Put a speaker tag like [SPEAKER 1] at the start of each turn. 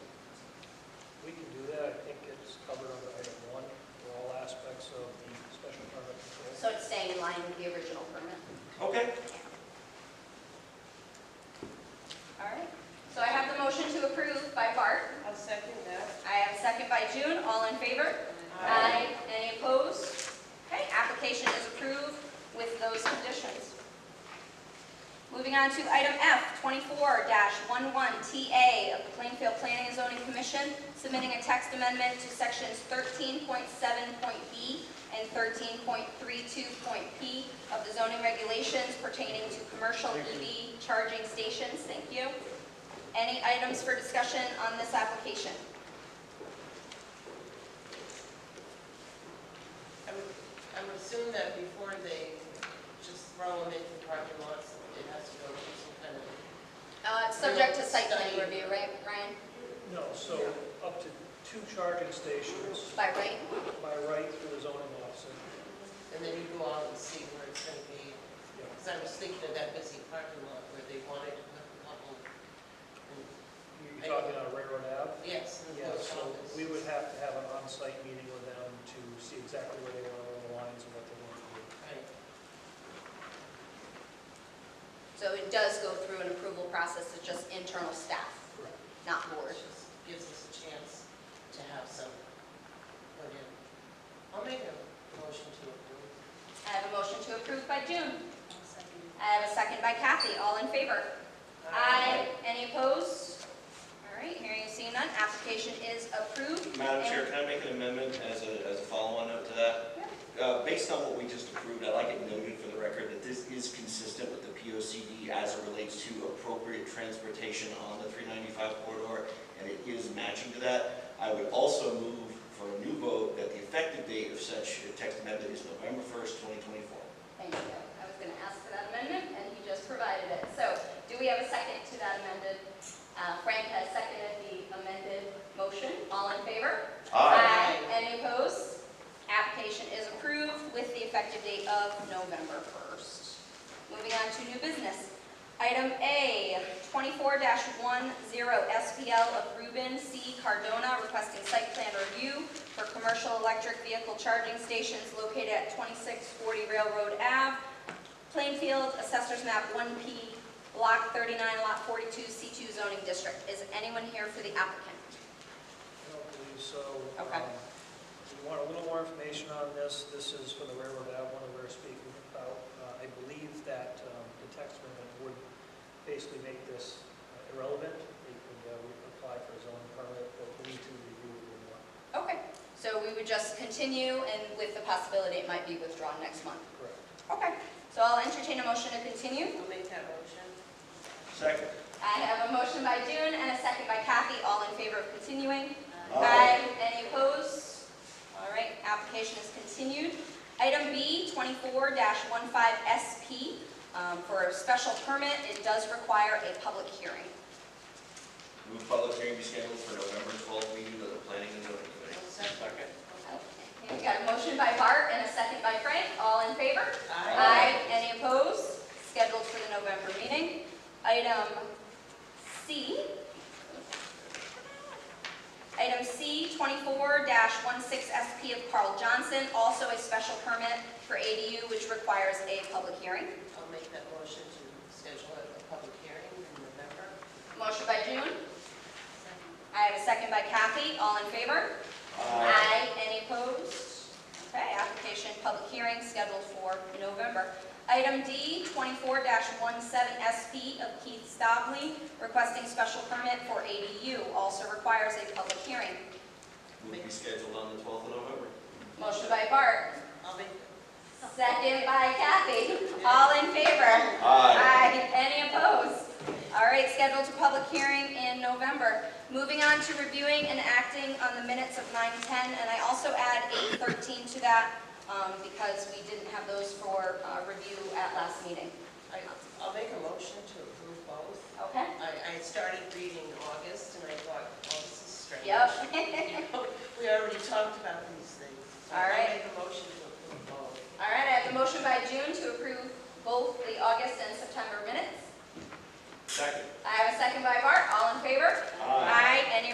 [SPEAKER 1] favor? Aye. Any opposed? Okay, application is approved with those conditions. Moving on to item F, 24-11TA of the Plainfield Planning and Zoning Commission, submitting a text amendment to sections 13.7.b and 13.32.p of the zoning regulations pertaining to commercial EV charging stations. Thank you. Any items for discussion on this application?
[SPEAKER 2] I would, I would assume that before they just throw them into parking lots, it has to go through some kind of,
[SPEAKER 1] Uh, it's subject to site plan
[SPEAKER 2] Study.
[SPEAKER 1] review, right, Ryan?
[SPEAKER 3] No, so up to two charging stations
[SPEAKER 1] By right?
[SPEAKER 3] by right through the zoning officer.
[SPEAKER 2] and then you go out and see where it's gonna be.
[SPEAKER 3] Yeah.
[SPEAKER 2] Because I was thinking of that busy parking lot where they wanted to put a couple. and-
[SPEAKER 3] You're talking on Railroad Ave?
[SPEAKER 2] Yes, and the
[SPEAKER 3] Yeah,
[SPEAKER 2] post
[SPEAKER 3] so
[SPEAKER 2] office.
[SPEAKER 3] we would have to have an on-site meeting with them to see exactly where they want to run the lines and what they want to do.
[SPEAKER 2] Right.
[SPEAKER 1] So it does go through an approval process, it's just internal staff,
[SPEAKER 3] Correct.
[SPEAKER 1] not board.
[SPEAKER 2] It just gives us a chance to have some put in. I'll make a motion to approve.
[SPEAKER 1] I have a motion to approve by June. I have a second by Kathy, all in favor? Any opposed? All right, hearing and seeing none, application is approved.
[SPEAKER 4] Madam Chair, can I make an amendment as a, as a follow-on note to that? Uh, Based on what we just approved, I'd like it noted for the record that this is consistent with the POCD as it relates to appropriate transportation on the 395 corridor, and it is matching to that. I would also move for a new vote that the effective date of such text amendment is November 1st, 2024.
[SPEAKER 1] Thank you. I was going to ask for that amendment, and he just provided it. So do we have a second to that amended? Uh, Frank has seconded the amended motion. All in favor?
[SPEAKER 2] Aye.
[SPEAKER 1] Any opposed? Application is approved with the effective date of November 1st. Moving on to new business. Item A, 24-10 SPL of Ruben C. Cardona requesting site plan review for commercial electric vehicle charging stations located at 2640 Railroad Ave, Plainfield, Assessor's Map 1P, Block 39, Lot 42, C2 zoning district. Is anyone here for the applicant?
[SPEAKER 3] I don't believe so.
[SPEAKER 1] Okay.
[SPEAKER 3] Um, We want a little more information on this. This is for the Railroad Ave one that we we're speaking about. Uh, I believe that um, the text amendment would basically make this uh, irrelevant. They could uh, re- apply for a zoning permit, but we need to review it a little more.
[SPEAKER 1] Okay, so we would just continue and with the possibility it might be withdrawn next month.
[SPEAKER 3] Correct.
[SPEAKER 1] Okay, so I'll entertain a motion to continue.
[SPEAKER 2] I'll make that motion.
[SPEAKER 4] Second.
[SPEAKER 1] I have a motion by June and a second by Kathy, all in favor of continuing.
[SPEAKER 4] Aye.
[SPEAKER 1] Any opposed? All right, application is continued. Item B, 24-15SP, um, for a special permit, it does require a public hearing.
[SPEAKER 4] Move public hearing be scheduled for November 12th meeting of the Planning and Zoning Committee.
[SPEAKER 1] Okay, We got a motion by Bart and a second by Frank, all in favor? Aye. Any opposed? Scheduled for the November meeting. Item C. Item C, 24-16SP of Carl Johnson, also a special permit for ADU, which requires a public hearing.
[SPEAKER 2] I'll make that motion to schedule a a public hearing in November.
[SPEAKER 1] Motion by June. I have a second by Kathy. All in favor?
[SPEAKER 4] Aye.
[SPEAKER 1] Aye. Any opposed? Okay, application, public hearing scheduled for November. Item D, 24-17SP of Keith Stobley, requesting special permit for ADU, also requires a public hearing.
[SPEAKER 4] Move be scheduled on the 12th of November.
[SPEAKER 1] Motion by Bart,
[SPEAKER 2] I'll make,
[SPEAKER 1] second by Kathy. All in favor? Aye. Any opposed? All right, scheduled to public hearing in November. Moving on to reviewing and acting on the minutes of 9:10, and I also add 8:13 to that um, because we didn't have those for uh, review at last meeting.
[SPEAKER 2] I, I'll make a motion to approve both.
[SPEAKER 1] Okay?
[SPEAKER 2] I, I started reading August and I thought, oh, this is strange.
[SPEAKER 1] Yep.
[SPEAKER 2] We already talked about these things. So
[SPEAKER 1] All right.
[SPEAKER 2] I'll make a motion to approve both.
[SPEAKER 1] All right, I have a motion by June to approve both the August and September minutes.
[SPEAKER 4] Second.
[SPEAKER 1] I have a second by Bart. All in favor? Any